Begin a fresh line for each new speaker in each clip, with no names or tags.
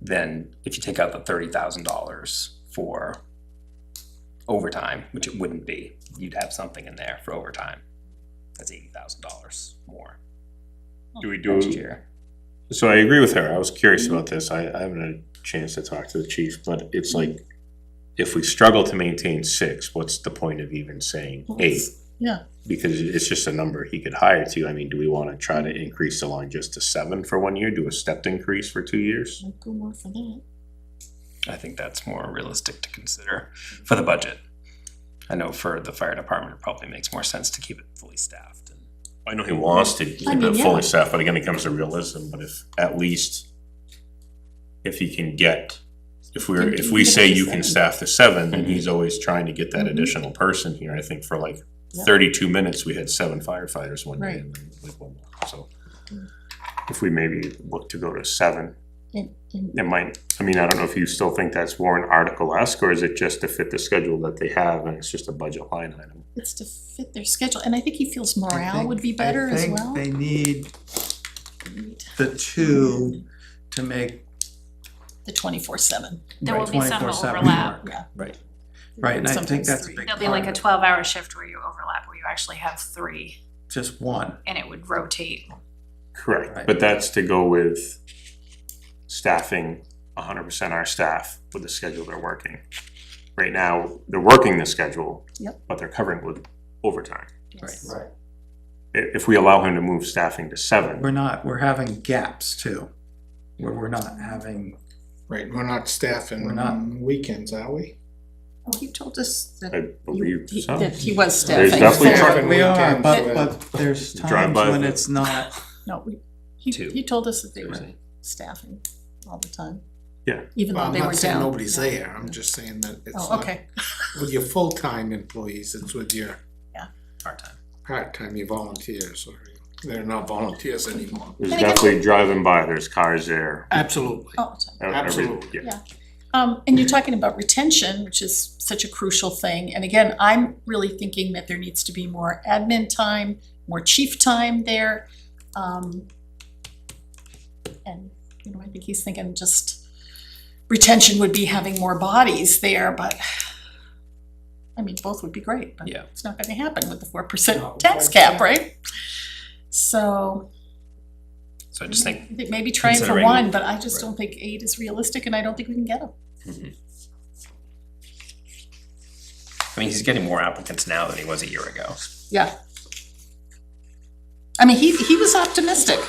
then if you take out the thirty thousand dollars for overtime, which it wouldn't be, you'd have something in there for overtime. That's eighty thousand dollars more
Do we do,
next year.
so I agree with her, I was curious about this, I, I haven't had a chance to talk to the chief, but it's like, if we struggle to maintain six, what's the point of even saying eight?
yeah.
Because it's just a number he could hire to, I mean, do we wanna try to increase the line just to seven for one year, do a stepped increase for two years?
I'll go more for that.
I think that's more realistic to consider for the budget. I know for the fire department, it probably makes more sense to keep it fully staffed and
I know he wants to
I
keep
mean,
it
yeah.
fully staffed, but again, it comes to realism, but if, at least if he can get, if we're, if we say you can staff the seven, then he's always trying to get that
Mhm.
additional person here, I think for like
Yeah.
thirty-two minutes, we had seven firefighters one day and then like one more, so.
Mm.
If we maybe look to go to seven,
And, and
it might, I mean, I don't know if you still think that's Warren article-esque, or is it just to fit the schedule that they have and it's just a budget line item?
it's to fit their schedule, and I think he feels
I
morale
think-
would be better
I
as
think
well.
They need
The
the two to make.
twenty-four seven,
There will be some
24/7
overlap.
work.
yeah.
Right, right, and I think
Sometimes
that's a
three.
big
There'll be like a
part of it.
twelve hour shift where you overlap, where you actually have three
Just one,
and it would rotate.
Correct,
Right.
but that's to go with staffing hundred percent our staff with the schedule they're working. Right now, they're working the schedule.
Yep.
But they're covering with overtime.
Yes.
Right.
I- If, we allow him to move staffing to
we're
seven,
not, we're having gaps too, where we're not having,
Right, we're not
We're
staffing
not.
on weekends, are we?
Well, Oh, he told us that
I
you-
believe
he-
so.
that he was
There's
staffing.
definitely
for-
Staffing
we are,
weekends,
but,
uh,
but there's
Drive
times
by
when
the-
it's not.
No, we- he,
Two.
he told us that they were
Right.
staffing all the time.
Yeah.
Even
Well,
though
I'm
they were
not saying
down.
nobody's
Yeah.
there, I'm just saying that it's
Oh,
not
okay,
with your full-time employees, it's with your
part-time.
part-time, your volunteers, or they're not volunteers anymore.
There's
And again-
definitely driving by, there's cars there.
Absolutely.
all the time.
e- every-
Absolutely.
yeah.
Um, and you're talking about retention, which is such a crucial thing. And again, I'm really thinking that there needs to be more admin time, more chief time there. Um, and, you know, I think he's thinking just retention would be having more bodies there, but I mean, both would be great, but
Yeah.
it's not gonna happen with the four percent tax cap, right? So,
So I
I
just think
think maybe trying for
considering-
one, but I just don't think eight is realistic and I don't think we can get them.
I mean, he's getting more applicants now than he was a year ago.
Yeah. I mean, he, he was optimistic,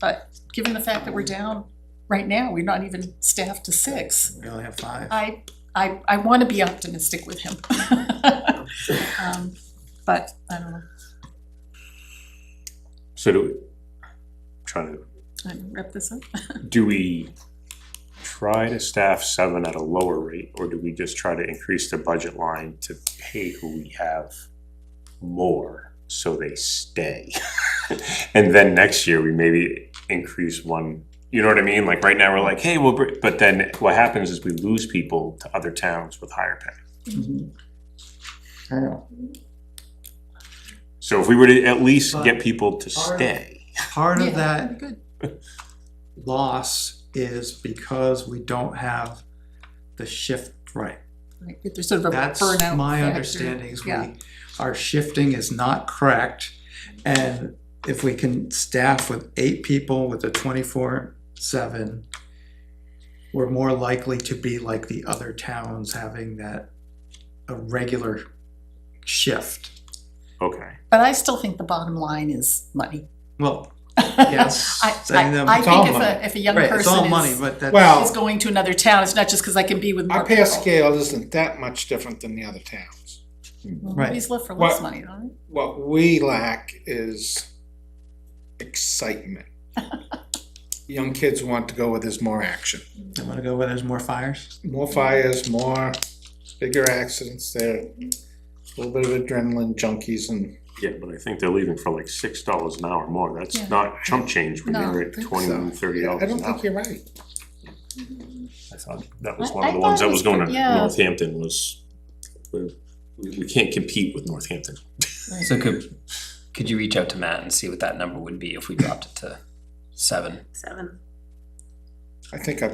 but given the fact that we're down right now, we're not even staffed to six.
We only have five.
Uh,
I, I, I wanna be optimistic with him. Um, But, I don't know,
So do, we- trying to
I'm wrap this up.
do we try to staff seven at a lower rate, or do we just try to increase the budget line to pay who we have more so they stay? And then next year, we maybe increase one, you know what I mean? Like, right now, we're like, hey, we'll, br- but then what happens is we lose people to other towns with higher pay.
Mm-hmm.
So if we were to at least get people to stay,
Part
Yeah,
of that
that'd be good.
loss is because we don't have the shift right.
Like, if There's sort of a burnout
That's
factor.
my understanding is we,
Yeah.
our shifting is not correct. And if we can staff with eight people with a twenty-four seven, we're more likely to be like the other towns having that, a regular shift.
okay.
But I still think the bottom line is money.
Well,
Yes.
yes,
I,
sending them.
I, I
It's all
think if
money.
a, if a young
Right,
person
it's all
is-
money, but that's.
Well,
is going to another town, it's not just because I can be with more
Our
people.
pay scale isn't that much different than the other towns.
Well,
Right.
Movies live for less
What-
money, don't they?
What we lack is excitement. Young kids want to go where there's more action,
I'm gonna go where there's more fires.
more fires, more bigger accidents, they're a little bit of adrenaline junkies and
Yeah, but I think they're leaving for like six dollars an hour more.
Yeah.
That's not chump change when
No,
they were
I
at
think so.
twenty, thirty
Yeah,
dollars
I
an hour.
don't think you're right.
I thought Uh, that was
I-
one of
I
the ones
thought it
that
was
was going to
pretty- yeah.
Northampton was, we, we can't compete with Northampton.
So could could you reach out to Matt and see what that number would be if we dropped it to seven?
Seven.
I think I